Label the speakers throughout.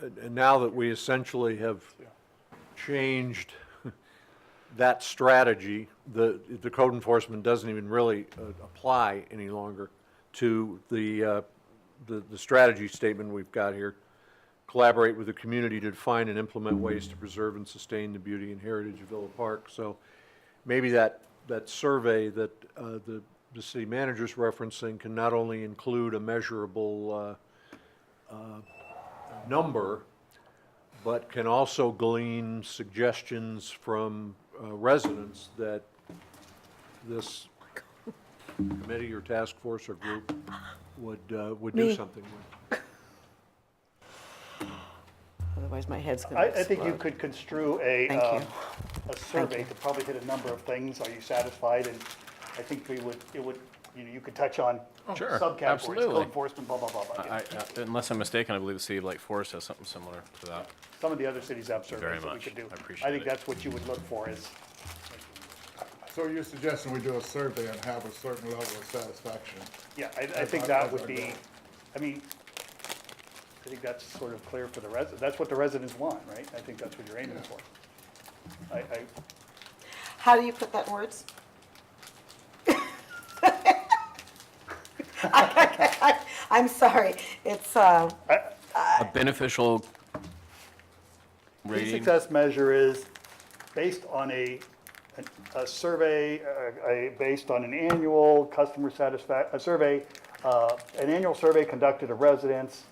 Speaker 1: And and now that we essentially have changed that strategy, the, the code enforcement doesn't even really uh, apply any longer to the, uh, the, the strategy statement we've got here. Collaborate with the community to define and implement ways to preserve and sustain the beauty and heritage of Villa Park. So maybe that, that survey that uh, the, the city manager's referencing can not only include a measurable uh, number, but can also glean suggestions from uh, residents that this committee or task force or group would, uh, would do
Speaker 2: Me.
Speaker 1: something with.
Speaker 2: Otherwise, my head's gonna
Speaker 3: I, I think you
Speaker 2: explode.
Speaker 3: could construe a,
Speaker 2: Thank
Speaker 3: um,
Speaker 2: you.
Speaker 3: a survey
Speaker 2: you.
Speaker 3: to probably hit a number of things. Are you satisfied? And I think we would, it would, you know, you could touch on
Speaker 4: Oh, Sure,
Speaker 3: subcategories,
Speaker 4: absolutely. Uh,
Speaker 3: code enforcement, blah, blah, blah, blah.
Speaker 4: I,
Speaker 3: yeah.
Speaker 4: I- unless I'm mistaken, I believe the city of Lake Forest has something similar to that.
Speaker 3: Some of the other cities have surveys that we
Speaker 4: much.
Speaker 3: could do.
Speaker 4: I
Speaker 3: I
Speaker 4: appreciate
Speaker 3: think
Speaker 4: it.
Speaker 3: that's what you would look for is,
Speaker 5: So you're suggesting we do a survey and have a certain level of satisfaction?
Speaker 3: yeah, I, I think that
Speaker 5: our- that's
Speaker 3: would
Speaker 5: our
Speaker 3: be,
Speaker 5: goal.
Speaker 3: I mean, I think that's sort of clear for the residents. That's what the residents want, right? I think that's what you're aiming for. I, I,
Speaker 2: How do you put that in words? I'm sorry, it's, uh,
Speaker 4: A beneficial
Speaker 3: Key
Speaker 4: rating.
Speaker 3: success measure is based on a, a- a survey, a, a- based on an annual customer satisfac, a survey, uh, an annual survey conducted of residents.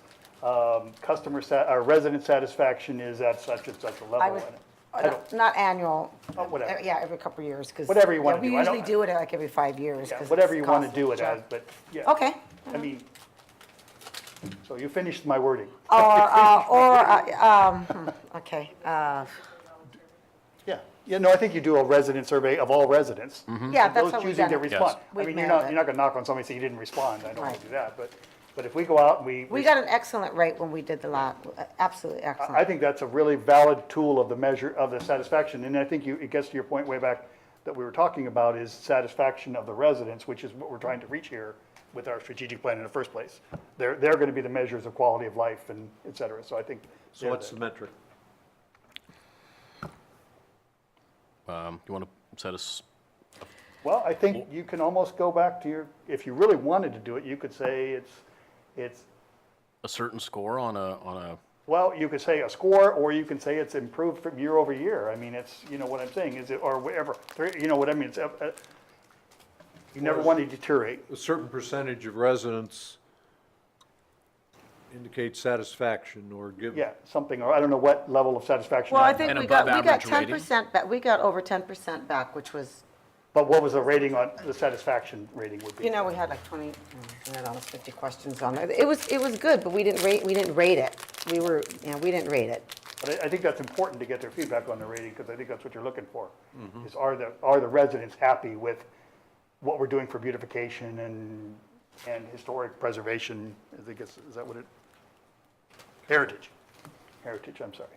Speaker 3: um, Customer sa, uh, resident satisfaction is at such and such a level.
Speaker 2: I would,
Speaker 3: and
Speaker 2: not- not annual.
Speaker 3: Oh, whatever.
Speaker 2: Uh, Yeah, every couple of years, because.
Speaker 3: Whatever you wanna do.
Speaker 2: We
Speaker 3: I don't-
Speaker 2: usually do it like every five years.
Speaker 3: yeah,
Speaker 2: 'cause
Speaker 3: Whatever
Speaker 2: it's
Speaker 3: you want to
Speaker 2: costly,
Speaker 3: do it
Speaker 2: sure.
Speaker 3: as, but yeah.
Speaker 2: Okay.
Speaker 3: I mean, so you finished my wording.
Speaker 2: Or, uh, or, uh, um, hmm, okay, uh,
Speaker 3: Yeah, yeah, no, I think you do a resident survey of all residents.
Speaker 2: yeah,
Speaker 3: And
Speaker 2: that's what
Speaker 3: Those
Speaker 2: we've
Speaker 3: choosing
Speaker 2: done.
Speaker 3: to respond. I
Speaker 2: We've
Speaker 3: mean, you're
Speaker 2: mailed
Speaker 3: not,
Speaker 2: it.
Speaker 3: you're not gonna knock on somebody and say you didn't respond, I don't wanna
Speaker 2: Right.
Speaker 3: do that, but, but if we go out and we.
Speaker 2: We got an excellent rate when we did the lot, absolutely
Speaker 3: I I
Speaker 2: excellent.
Speaker 3: think that's a really valid tool of the measure, of the satisfaction, and I think you, it gets to your point way back that we were talking about is satisfaction of the residents, which is what we're trying to reach here with our strategic plan in the first place. They're, they're gonna be the measures of quality of life and et cetera, so I think.
Speaker 1: So what's the metric?
Speaker 4: Um, you want to set us,
Speaker 3: Well, I think you can almost go back to your, if you really wanted to do it, you could say it's, it's,
Speaker 4: a certain score on a, on a,
Speaker 3: well, you could say a score, or you can say it's improved from year over year. I mean, it's, you know what I'm saying, is it, or whatever, Three- you know what I mean, it's, uh, uh, you never want to deteriorate.
Speaker 1: A certain percentage of residents indicate satisfaction or give.
Speaker 3: Yeah, something, or I don't know what level of satisfaction.
Speaker 2: Well, I
Speaker 3: that-
Speaker 2: think
Speaker 4: And
Speaker 2: we got, we got
Speaker 4: above-average
Speaker 2: ten
Speaker 4: rating?
Speaker 2: percent back, we got over ten percent back, which was,
Speaker 3: But what was the rating on, the satisfaction rating would be?
Speaker 2: you know, we had like twenty, we had almost fifty questions on it. It was, it was good, but we didn't rate, we didn't rate it. We were, you know, we didn't rate it.
Speaker 3: But I, I think that's important to get their feedback on the rating, because I think that's what you're looking for.
Speaker 4: Mm-hmm.
Speaker 3: Is are the, are the residents happy with what we're doing for beautification and, and historic preservation? I think it's, is that what it? Heritage, heritage, I'm sorry.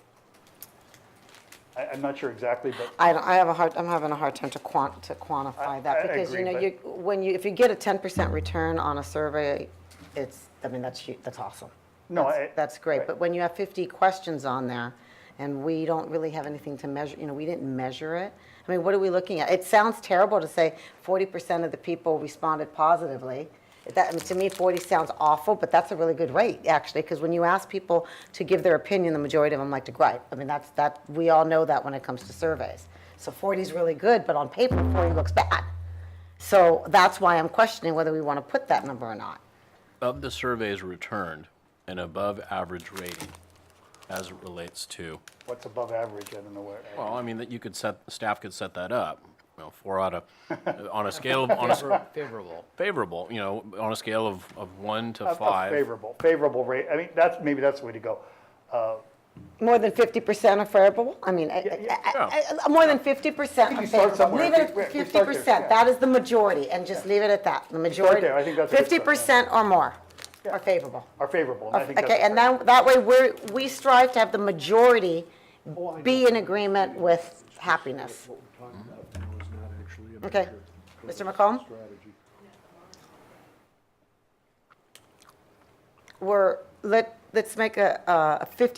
Speaker 3: I, I'm not sure exactly, but
Speaker 2: I don't, I have a hard, I'm having a hard time to quant, to quantify
Speaker 3: I- I
Speaker 2: that, because, you
Speaker 3: agree,
Speaker 2: know,
Speaker 3: but-
Speaker 2: you, when you, if you get a ten percent return on a survey, it's, I mean, that's, hu- that's awesome.
Speaker 3: No,
Speaker 2: That's-
Speaker 3: I-
Speaker 2: That's great,
Speaker 3: right.
Speaker 2: but when you have fifty questions on there, and we don't really have anything to measure, you know, we didn't measure it, I mean, what are we looking at? It sounds terrible to say forty percent of the people responded positively. That, I mean, to me, forty sounds awful, but that's a really good rate, actually, because when you ask people to give their opinion, the majority of them like to gripe. I mean, that's, that, we all know that when it comes to surveys. So forty is really good, but on paper, forty looks bad. So that's why I'm questioning whether we want to put that number or not.
Speaker 4: of the surveys returned, an above average rating as it relates to,
Speaker 3: what's above average, I don't know where.
Speaker 4: well, I mean, that you could set, staff could set that up. You know, four out of, on a scale, of- on a,
Speaker 6: Favorable.
Speaker 4: favorable, you know, on a scale of, of one to
Speaker 3: A- a
Speaker 4: five.
Speaker 3: Favorable, favorable rate, I mean, that's, maybe that's the way to go.
Speaker 2: More than fifty percent are favorable? I mean, I-
Speaker 3: yeah.
Speaker 2: I- I- I- more than fifty percent
Speaker 3: think
Speaker 2: are
Speaker 3: you start
Speaker 2: favorable.
Speaker 3: somewhere.
Speaker 2: Leave
Speaker 3: We- we-
Speaker 2: it
Speaker 3: we
Speaker 2: fifty
Speaker 3: start there, yeah.
Speaker 2: percent, that is the majority, and just leave it at that, the majority.
Speaker 3: there, I think that's a good
Speaker 2: Fifty
Speaker 3: start, yeah.
Speaker 2: percent or more are favorable.
Speaker 3: Are favorable, and I think that's.
Speaker 2: Okay, and then, that way, we're, we strive to have the majority be in agreement with happiness.
Speaker 1: Oh, What we're talking about now is not actually a
Speaker 2: Okay.
Speaker 1: measure, but
Speaker 2: Mr.
Speaker 1: a
Speaker 2: McComb?
Speaker 1: strategy.
Speaker 2: We're, let, let's make a, a fifty